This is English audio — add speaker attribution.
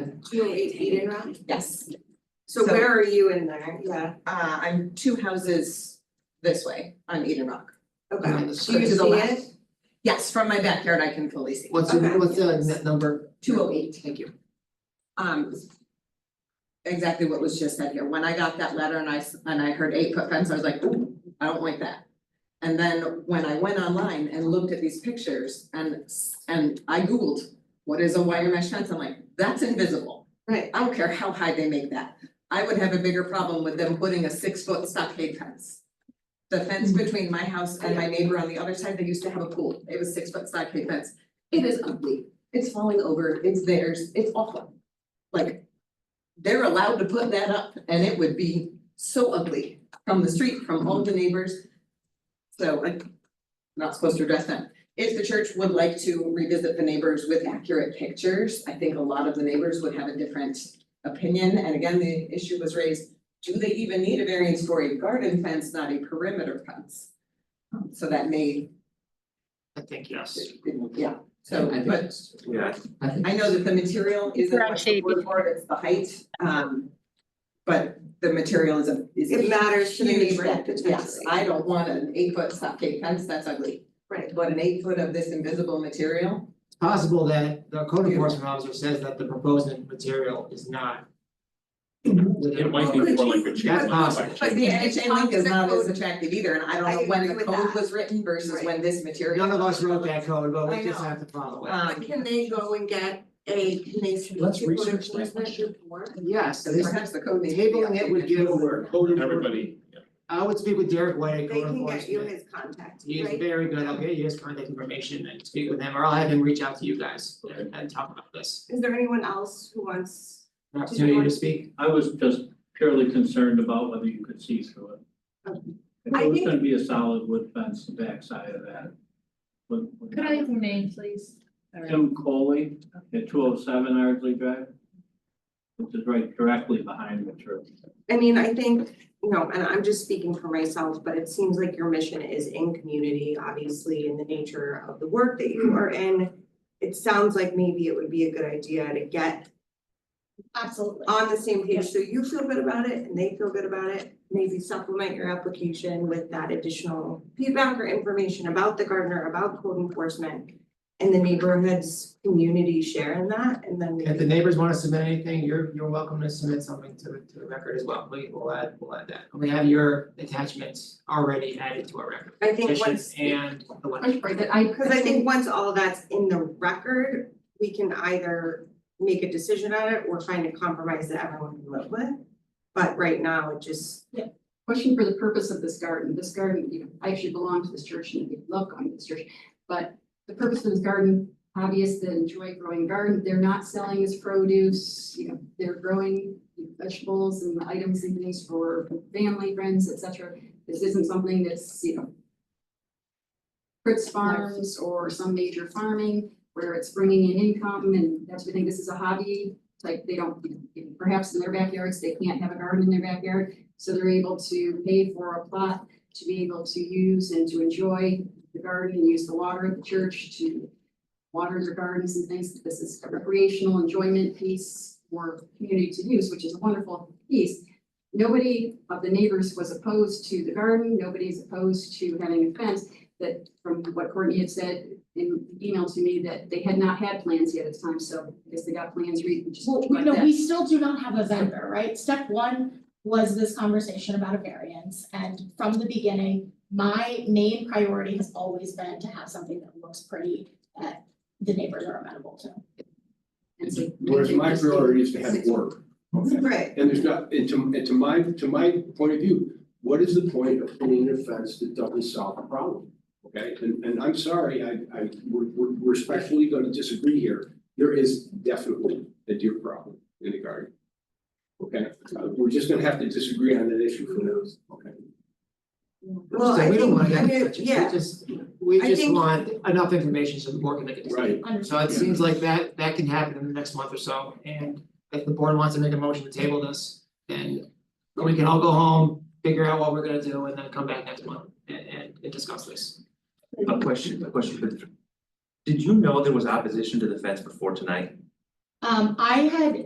Speaker 1: two oh eight Eden Rock?
Speaker 2: Yes,
Speaker 1: So
Speaker 3: So-
Speaker 1: where are you in there? Yeah,
Speaker 3: Uh, I'm two houses this way on Eden Rock.
Speaker 1: okay.
Speaker 4: On the
Speaker 1: Do you
Speaker 3: to
Speaker 1: see
Speaker 3: the
Speaker 1: it?
Speaker 3: left. Yes, from my backyard, I can fully see.
Speaker 4: What's
Speaker 1: Okay.
Speaker 4: your, what's the net number?
Speaker 2: two oh eight.
Speaker 4: Thank you.
Speaker 3: Um. Exactly what was just said here, when I got that letter and I, s- and I heard eight foot fence, I was like, ooh, I don't like that. And then when I went online and looked at these pictures and, s- and I Googled, what is a wire mesh fence, I'm like, that's invisible.
Speaker 1: Right,
Speaker 3: I don't care how high they make that, I would have a bigger problem with them putting a six foot stockade fence. The fence between my house and my neighbor on the other side, they used to have a pool, it was six foot stockade fence. It is ugly, it's falling over, it's theirs, it's awful. Like, they're allowed to put that up and it would be so ugly from the street, from all the neighbors. So like, not supposed to address them. If the church would like to revisit the neighbors with accurate pictures, I think a lot of the neighbors would have a different opinion, and again, the issue was raised, do they even need a variance for a garden fence, not a perimeter fence? Um, So that may,
Speaker 4: I think yes.
Speaker 3: yeah, so,
Speaker 4: I think
Speaker 3: but
Speaker 4: yes.
Speaker 5: Yeah,
Speaker 4: I think.
Speaker 3: I know that the material isn't
Speaker 6: Ground
Speaker 3: what the
Speaker 6: shade.
Speaker 3: board for, it's the height, um, but the material is a, is a
Speaker 1: it matters to the
Speaker 3: huge
Speaker 1: neighbor
Speaker 3: benefit.
Speaker 1: potentially.
Speaker 3: Yes, I don't want an eight foot stockade fence, that's ugly,
Speaker 1: Right,
Speaker 3: but an eight foot of this invisible material,
Speaker 7: It's possible that the code enforcement officer says that the proposed material is not.
Speaker 5: it might be more like a chain
Speaker 7: That's
Speaker 5: link,
Speaker 7: possible.
Speaker 5: like
Speaker 3: but the
Speaker 1: Yeah,
Speaker 3: chain link is not as
Speaker 1: code-
Speaker 3: attractive either, and I
Speaker 1: I
Speaker 3: don't know when
Speaker 1: agree
Speaker 3: the
Speaker 1: with
Speaker 3: code
Speaker 1: that.
Speaker 3: was written versus
Speaker 1: Right.
Speaker 3: when this material.
Speaker 7: None of us wrote that code, but
Speaker 3: I
Speaker 7: we just
Speaker 3: know.
Speaker 7: have to follow it.
Speaker 1: but
Speaker 3: Um,
Speaker 1: can they go and get a, can they submit
Speaker 4: Let's
Speaker 1: to code
Speaker 4: research that
Speaker 1: enforcement
Speaker 4: question.
Speaker 1: report?
Speaker 7: Yes,
Speaker 3: so
Speaker 7: this
Speaker 3: perhaps the code needs to be
Speaker 7: tabling it would
Speaker 3: updated.
Speaker 7: give,
Speaker 5: everybody, yeah.
Speaker 7: I would speak with Derek White, at
Speaker 1: They
Speaker 7: code
Speaker 1: can get you
Speaker 7: enforcement.
Speaker 1: his contact,
Speaker 7: He is
Speaker 1: right?
Speaker 7: very good. I'll get you his contact information and speak with him, or I'll have him reach out to you guys and and talk about this.
Speaker 1: Is there anyone else who wants,
Speaker 7: An Opportunity to speak.
Speaker 8: I was just purely concerned about whether you could see through it. If
Speaker 1: I
Speaker 8: it was
Speaker 1: think-
Speaker 8: gonna be a solid wood fence, the backside of that. would- would
Speaker 6: Could I have your name, please? All right.
Speaker 8: Tim Coley at two oh seven Ardsley Drive. Which is right directly behind the church.
Speaker 1: I mean, I think, you know, and I'm just speaking for myself, but it seems like your mission is in community, obviously, in the nature of the work that you are in. It sounds like maybe it would be a good idea to get
Speaker 2: Absolutely.
Speaker 1: on the same page, so you feel good about it and they feel good about it. Maybe supplement your application with that additional feedback or information about the gardener, about code enforcement. And the neighborhood's community share in that, and then
Speaker 7: If the
Speaker 1: maybe,
Speaker 7: neighbors wanna submit anything, you're you're welcome to submit something to to the record as well. We will add, we'll add that. We have your attachments already added to our record.
Speaker 1: I think
Speaker 7: Petition
Speaker 1: once.
Speaker 7: and the letter.
Speaker 2: I.
Speaker 1: Cause I think once all that's in the record, we can either make a decision on it or find a compromise that everyone can live with. But right now, it just,
Speaker 9: question for the purpose of this garden, this garden, you know, I actually belong to this church and love going to this church. But the purpose of this garden, hobbyists that enjoy growing garden, they're not selling as produce, you know, they're growing vegetables and items and things for family, friends, et cetera. This isn't something that's, you know, Fritz Farms or some major farming where it's bringing in income and that's, we think this is a hobby. Like they don't, perhaps in their backyards, they can't have a garden in their backyard. So they're able to pay for a plot to be able to use and to enjoy the garden, use the water of the church to water their gardens and things. This is a recreational enjoyment piece for community to use, which is a wonderful piece. Nobody of the neighbors was opposed to the garden. Nobody's opposed to having a fence that from what Courtney had said in the email to me that they had not had plans yet at the time. So I guess they got plans read. just
Speaker 2: Well, we
Speaker 9: like
Speaker 2: no,
Speaker 9: that.
Speaker 2: we still do not have a vendor, right? Step one was this conversation about a variance, and from the beginning, my main priority has always been to have something that looks pretty, that the neighbors are amenable to.
Speaker 9: And so-
Speaker 10: Whereas my priority is to have
Speaker 9: Six-
Speaker 10: work.
Speaker 1: right,
Speaker 10: And there's not, and to, and to my, to my point of view, what is the point of putting in a fence that doesn't solve the problem? Okay, and, and I'm sorry, I, I, we're, we're we're respectfully gonna disagree here. There is definitely a deer problem in the garden. Okay, Uh, we're just gonna have to disagree on that issue for now, okay?
Speaker 1: well,
Speaker 7: So
Speaker 1: I
Speaker 7: we don't
Speaker 1: think,
Speaker 7: wanna
Speaker 1: I
Speaker 7: get
Speaker 1: mean,
Speaker 7: such a-
Speaker 1: yeah,
Speaker 7: we just, we
Speaker 1: I
Speaker 7: just
Speaker 1: think-
Speaker 7: want enough information so the board can make a decision. So it seems like that, that can happen in the next month or so, and if the board wants to make a motion to table this, then we can all go home, figure out what we're gonna do, and then come back next month and, and, and discuss this.
Speaker 5: A question, a question for the. Did you know there was opposition to the fence before tonight?
Speaker 2: Um, I had